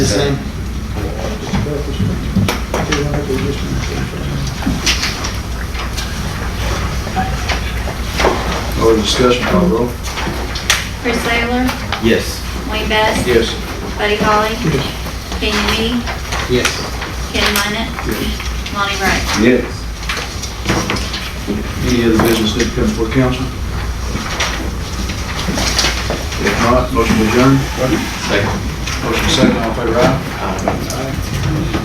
The same. Or discussion, call roll. Chris Taylor, Yes. Wayne Best, Yes. Buddy Holly, Kenny Me, Yes. Ken Minnet, Lonnie Wright. Yes. Any other business that come before council? If not, motion adjourned. Second. Motion second, all in favor, aye?